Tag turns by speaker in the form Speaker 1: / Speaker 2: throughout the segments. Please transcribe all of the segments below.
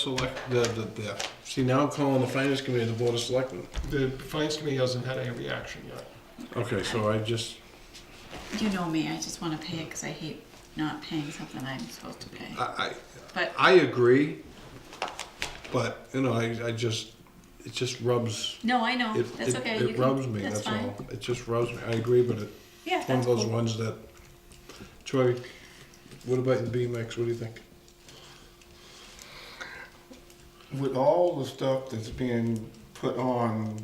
Speaker 1: Select,
Speaker 2: The, the, the, see, now I'm calling the finance committee the board of selectmen.
Speaker 1: the finance committee hasn't had any reaction yet.
Speaker 2: Okay, so I just,
Speaker 3: You know me, I just want to pay it because I hate not paying something I'm supposed to pay.
Speaker 2: I, I,
Speaker 3: But
Speaker 2: I agree, but, you know, I, I just, it just rubs.
Speaker 3: no, I know.
Speaker 2: It,
Speaker 3: that's
Speaker 2: it-
Speaker 3: okay. you
Speaker 2: It
Speaker 3: can-
Speaker 2: rubs me,
Speaker 3: That's
Speaker 2: that's
Speaker 3: fine.
Speaker 2: all. It just rubs me. I agree, but it,
Speaker 3: Yeah,
Speaker 2: one of
Speaker 3: that's
Speaker 2: those
Speaker 3: cool.
Speaker 2: ones that, Troy, what about the BMX? What do you think?
Speaker 4: with all the stuff that's being put on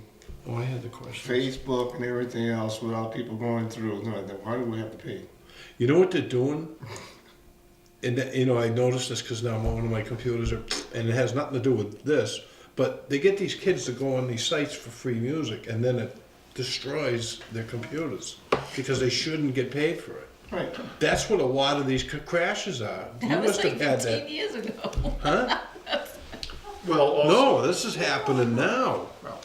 Speaker 2: Oh, I had the question.
Speaker 4: Facebook and everything else without people going through, no, then why do we have to pay?
Speaker 2: You know what they're doing? And that, you know, I noticed this because now one of my computers are, and it has nothing to do with this, but they get these kids to go on these sites for free music, and then it destroys their computers because they shouldn't get paid for it.
Speaker 4: Right.
Speaker 2: That's what a lot of these c- crashes are. You
Speaker 3: That was
Speaker 2: must
Speaker 3: like
Speaker 2: have had
Speaker 3: 15
Speaker 2: that,
Speaker 3: years ago.
Speaker 2: huh?
Speaker 1: Well, also,
Speaker 2: No, this is happening now.
Speaker 1: well,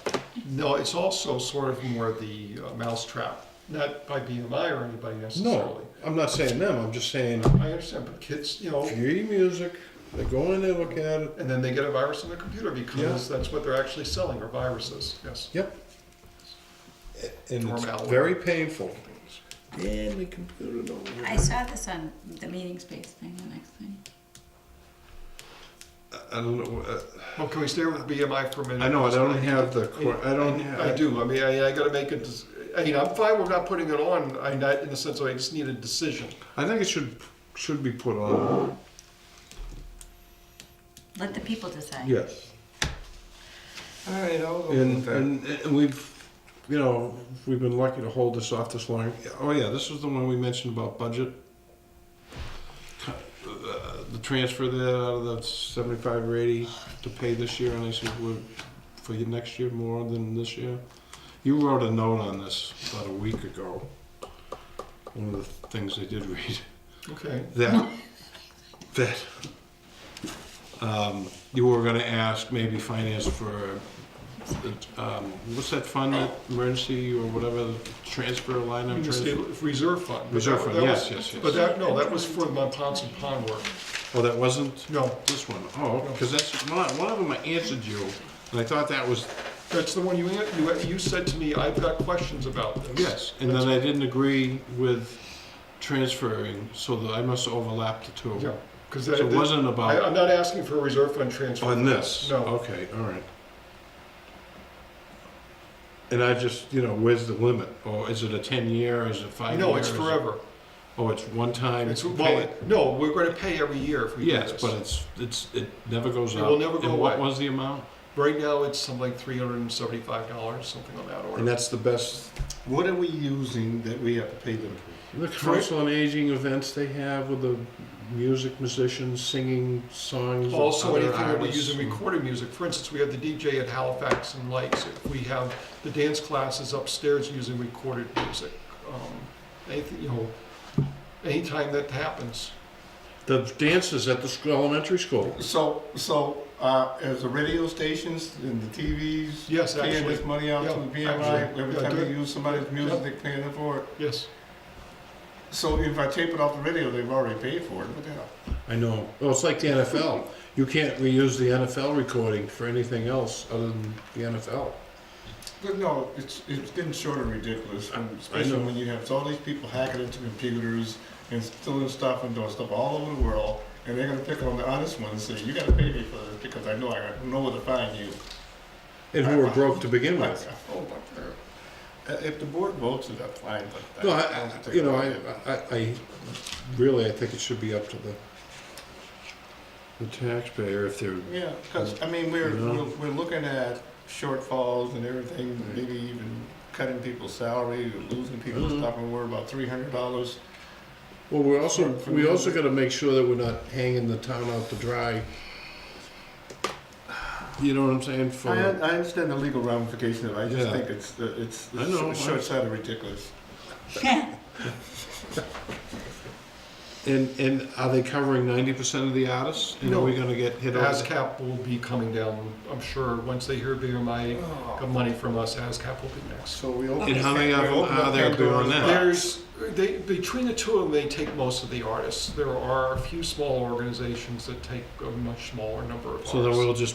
Speaker 1: no, it's also sort of more the uh, mousetrap, not by BMI or anybody necessarily.
Speaker 2: No, I'm not saying them. I'm just saying
Speaker 1: I understand, but kids, you know,
Speaker 2: free music. They go in, they look at it.
Speaker 1: and then they get a virus on their computer because that's what they're actually selling, are viruses, yes.
Speaker 2: Yep. And it's
Speaker 1: Normality.
Speaker 2: very painful. And the computer don't work.
Speaker 3: I saw this on the meeting space thing, the next thing.
Speaker 2: I don't know. uh,
Speaker 1: Well, can we stay with BMI for a minute?
Speaker 2: I know, I don't have the, cor- I don't
Speaker 1: I
Speaker 2: have,
Speaker 1: do, I mean, I, I gotta make a, dec- I mean, I'm fine with not putting it on, I, not, in the sense of I just need a decision.
Speaker 2: I think it should, should be put on.
Speaker 3: Let the people decide.
Speaker 2: Yes.
Speaker 4: All right, I'll go
Speaker 2: And, and, and we've, you know, we've been lucky to hold this off this long. Oh yeah, this was the one we mentioned about budget. Uh, The transfer there out of the seventy-five or eighty to pay this year, and I said, "Well, for your next year, more than this year. You wrote a note on this about a week ago. One of the things I did read
Speaker 1: Okay,
Speaker 2: that that um, you were going to ask maybe finance for um, what's that fund that emergency or whatever the transfer line
Speaker 1: I
Speaker 2: I'm
Speaker 1: mean, the
Speaker 2: trying
Speaker 1: stable-
Speaker 2: to,
Speaker 1: reserve fund. But
Speaker 2: reserve
Speaker 1: that-
Speaker 2: fund
Speaker 1: that was-
Speaker 2: yes yes yes
Speaker 1: But that, no, that was for the Montanson Pond work.
Speaker 2: oh that wasn't
Speaker 1: No,
Speaker 2: this one oh because that's one, one of them I answered you and I thought that was
Speaker 1: that's the one you, you, you said to me, I've got questions about this.
Speaker 2: yes and then I didn't agree with transferring so that I must overlap the two
Speaker 1: Yeah, because
Speaker 2: so it
Speaker 1: that,
Speaker 2: wasn't
Speaker 1: I,
Speaker 2: about Oh,
Speaker 1: I'm not asking for a reserve fund transfer.
Speaker 2: On this?
Speaker 1: No.
Speaker 2: Okay, all right. And I just, you know, where's the limit? Or is it a ten-year, is it five-year?
Speaker 1: No, it's forever.
Speaker 2: Oh, it's one time?
Speaker 1: It's,
Speaker 2: you
Speaker 1: well,
Speaker 2: pay it?
Speaker 1: it- no, we're gonna pay every year if we do
Speaker 2: Yes,
Speaker 1: this.
Speaker 2: but it's, it's, it never goes
Speaker 1: It
Speaker 2: up.
Speaker 1: will never go
Speaker 2: And what
Speaker 1: away.
Speaker 2: was the amount?
Speaker 1: Right now, it's something like three hundred and seventy-five dollars, something on that
Speaker 2: And
Speaker 1: order.
Speaker 2: that's the best,
Speaker 4: What are we using that we have to pay them for?
Speaker 2: the council on aging events they have with the music musicians singing songs of
Speaker 1: Also,
Speaker 2: other
Speaker 1: anything that we
Speaker 2: artists
Speaker 1: use in
Speaker 2: and-
Speaker 1: recorded music, for instance, we have the DJ at Halifax and Lights. We have the dance classes upstairs using recorded music. Um, Anything, you know, anytime that happens.
Speaker 2: The dances at the sc- elementary school.
Speaker 4: So, so, uh, as the radio stations and the TVs.
Speaker 1: Yes,
Speaker 4: Paying
Speaker 1: actually,
Speaker 4: this money out to
Speaker 1: Yeah,
Speaker 4: the BMI,
Speaker 1: actually.
Speaker 4: every
Speaker 1: Yeah,
Speaker 4: time
Speaker 1: do
Speaker 4: they
Speaker 1: it.
Speaker 4: use somebody's music,
Speaker 1: Yeah.
Speaker 4: they pay them for it.
Speaker 1: yes.
Speaker 4: So if I tape it off the radio, they've already paid for it, what the hell?
Speaker 2: I know. Well, it's like the NFL. You can't reuse the NFL recording for anything else other than the NFL.
Speaker 4: But no, it's, it's getting short and ridiculous, when- especially
Speaker 2: know.
Speaker 4: when you have all these people hacking into computers and stealing stuff and doing stuff all over the world, and they're gonna pick on the honest ones and say, you gotta pay me for this because I know I know where to find you.
Speaker 2: And who were broke to begin
Speaker 4: Like,
Speaker 2: with.
Speaker 4: oh my God. Uh, If the board votes it, I'm fine, but.
Speaker 2: No, I,
Speaker 4: don't
Speaker 2: I-
Speaker 4: think-
Speaker 2: you know, I, I, I really, I think it should be up to the the taxpayer if they're.
Speaker 4: Yeah, because, I mean, we're,
Speaker 2: No.
Speaker 4: we're we're looking at shortfalls and everything, maybe even cutting people's salary, or losing people's
Speaker 2: Mhm.
Speaker 4: stuff, and we're about three hundred dollars
Speaker 2: Well, we're also
Speaker 4: For- for
Speaker 2: we
Speaker 4: the-
Speaker 2: also got to make sure that we're not hanging the town out to dry. You know what I'm saying? For
Speaker 4: I, un- I understand the legal ramifications of it. I just
Speaker 2: Yeah.
Speaker 4: think it's uh, it's,
Speaker 2: I know,
Speaker 4: it's
Speaker 2: I-
Speaker 4: short sighted ridiculous.
Speaker 2: And And, and are they covering ninety percent of the artists? And are we gonna get hit over? the-
Speaker 1: ASCAP will be coming down, I'm sure, once they hear BMI
Speaker 4: Oh.
Speaker 1: got money from us, ASCAP will be next.
Speaker 4: So we open.
Speaker 2: And how many of them are there doing that?
Speaker 1: There's, they, between the two of them, they take most of the artists. There are a few small organizations that take a much smaller number of artists.
Speaker 2: So then we'll just